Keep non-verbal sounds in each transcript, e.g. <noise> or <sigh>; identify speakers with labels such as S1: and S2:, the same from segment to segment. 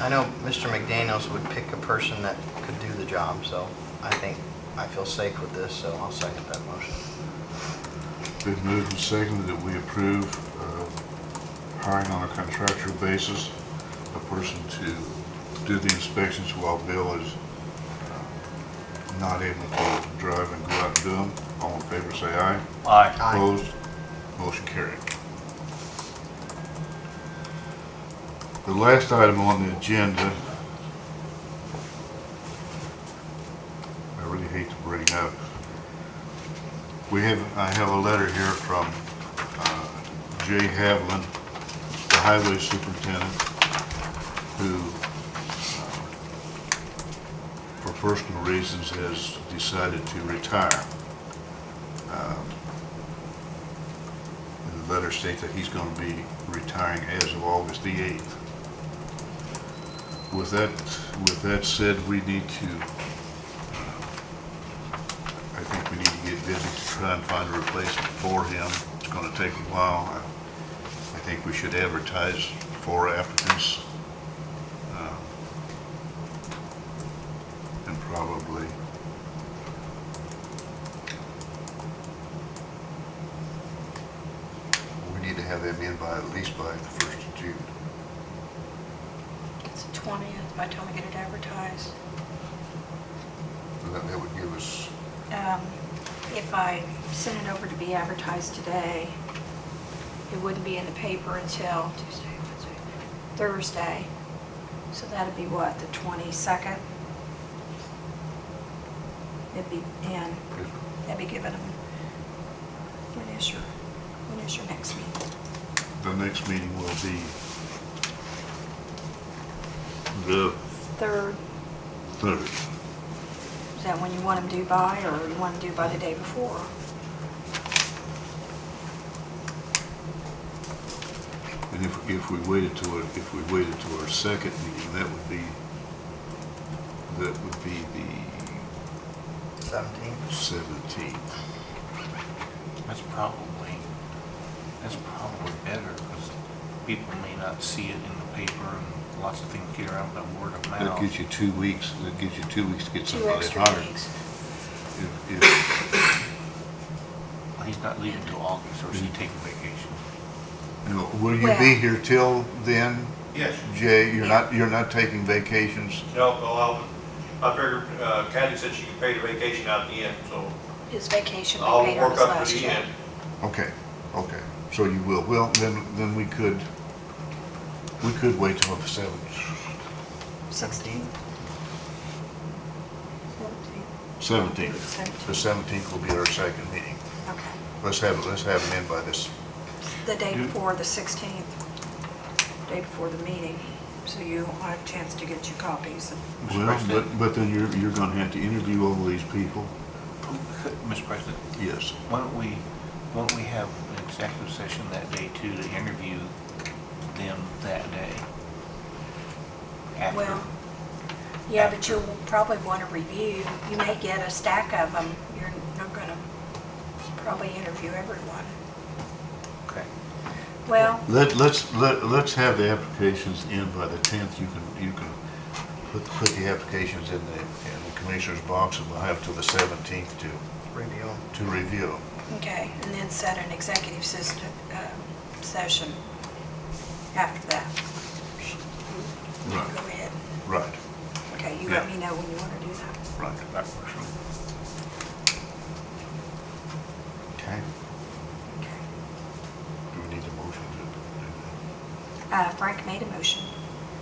S1: I know Mr. McDaniels would pick a person that could do the job, so I think, I feel safe with this, so I'll second that motion.
S2: Been moved and seconded that we approve uh, hiring on a contractual basis a person to do the inspections while Bill is uh, not able to drive and go out and do them. All in favor, say aye.
S3: Aye.
S1: Aye.
S2: Opposed? Motion carried. The last item on the agenda, I really hate to bring up. We have, I have a letter here from uh, Jay Havlin, the highway superintendent, who, uh, for personal reasons, has decided to retire. The letter states that he's going to be retiring as of August the 8th. With that, with that said, we need to, uh, I think we need to get busy to try and find a replacement for him. It's going to take a while. I I think we should advertise for applicants. uh, And probably, we need to have them in by, at least by the 1st of June.
S4: It's the 20th, by the time we get it advertised.
S2: And That that would give us
S4: Um, If I send it over to be advertised today, it wouldn't be in the paper until Tuesday, Wednesday, Thursday. So that'd be what, the 22nd? It'd be in, that'd be given them, when is your, when is your next meeting?
S2: The next meeting will be the
S4: Third,
S2: third.
S4: is that when you want them due by, or you want them due by the day before?
S2: And if, if we waited to, our- if we waited to our second meeting, that would be, that would be the
S1: Seventeen?
S2: seventeenth.
S3: That's probably, that's probably better, because people may not see it in the paper, and lots of things get around by word of
S2: That gives
S3: mouth.
S2: you two weeks, that gives you two weeks to get
S4: Two
S2: somebody
S4: extra
S2: hired.
S4: weeks.
S2: If- if-
S3: He's not leaving till August, or is he taking vacation? <laughs>
S2: you know, Will you be
S4: Well-
S2: here till then,
S5: Yes,
S2: Jay? You're
S4: Yeah.
S2: not, you're not taking vacations?
S5: no, well, I figured, uh, Kathy said she could pay the vacation out at the end, so
S4: His vacation
S5: I'll
S4: paid on
S5: work
S4: his
S5: up to
S4: last
S5: the
S4: check.
S5: end.
S2: Okay, okay, so you will, well, then, then we could, we could wait till the seventh,
S4: Sixteen?
S2: seventeenth. The
S4: Seventeen,
S2: seventeenth will be our second meeting.
S4: okay.
S2: Let's have, it. let's have it in by this,
S4: The day
S2: You-
S4: before, the sixteenth, day before the meeting, so you will have a chance to get your copies.
S2: well, but, but then you're, you're gonna have to interview all these people.
S3: Mr. President,
S2: Yes,
S3: why don't we, why don't we have an executive session that day too, to interview them that day? After.
S4: Well, yeah, but you'll probably want to review, you may get a stack of them, you're not gonna probably interview everyone.
S3: Okay.
S4: Well,
S2: let, let's, let, let's have the applications in by the tenth, you can, you can put, put the applications in the, in the commissioner's box, and we'll have till the seventeenth to,
S1: Review.
S2: to review.
S4: okay, and then set an executive system, um, session after that.
S2: Right.
S4: Go ahead.
S2: Right,
S4: Okay, you let
S2: Yeah.
S4: me know when you want to do that.
S2: right.
S3: That works for me.
S2: Okay,
S4: Okay.
S2: do we need a motion to
S4: Uh, Frank made a motion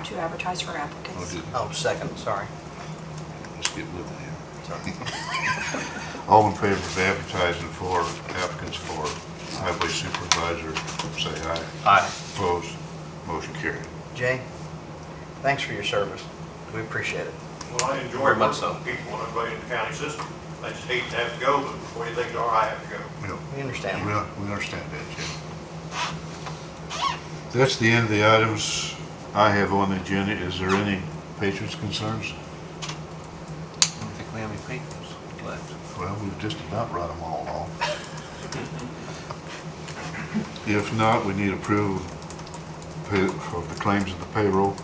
S4: to advertise for
S2: do that? Or
S4: applicants.
S2: did-
S1: Oh, second, sorry.
S2: Let's get with it here.
S1: Sorry.
S2: All in favor of advertising for applicants for highway supervisor, say aye.
S3: Aye.
S2: Opposed, motion carried.
S1: Jay, thanks for your service. We appreciate it.
S5: Well, I enjoy
S3: Very
S5: working
S3: much
S5: with people and everybody in the county system. I just hate to have to go, but before you think, all right, I have to go.
S2: We don't-
S1: We
S2: we
S1: understand.
S2: don't- we understand that, Jim. That's the end of the items I have on the agenda. Is there any patrons' concerns?
S3: I don't think we have any papers left.
S2: Well, we've just about run them all off. If not, we need approval of the claims of the payroll.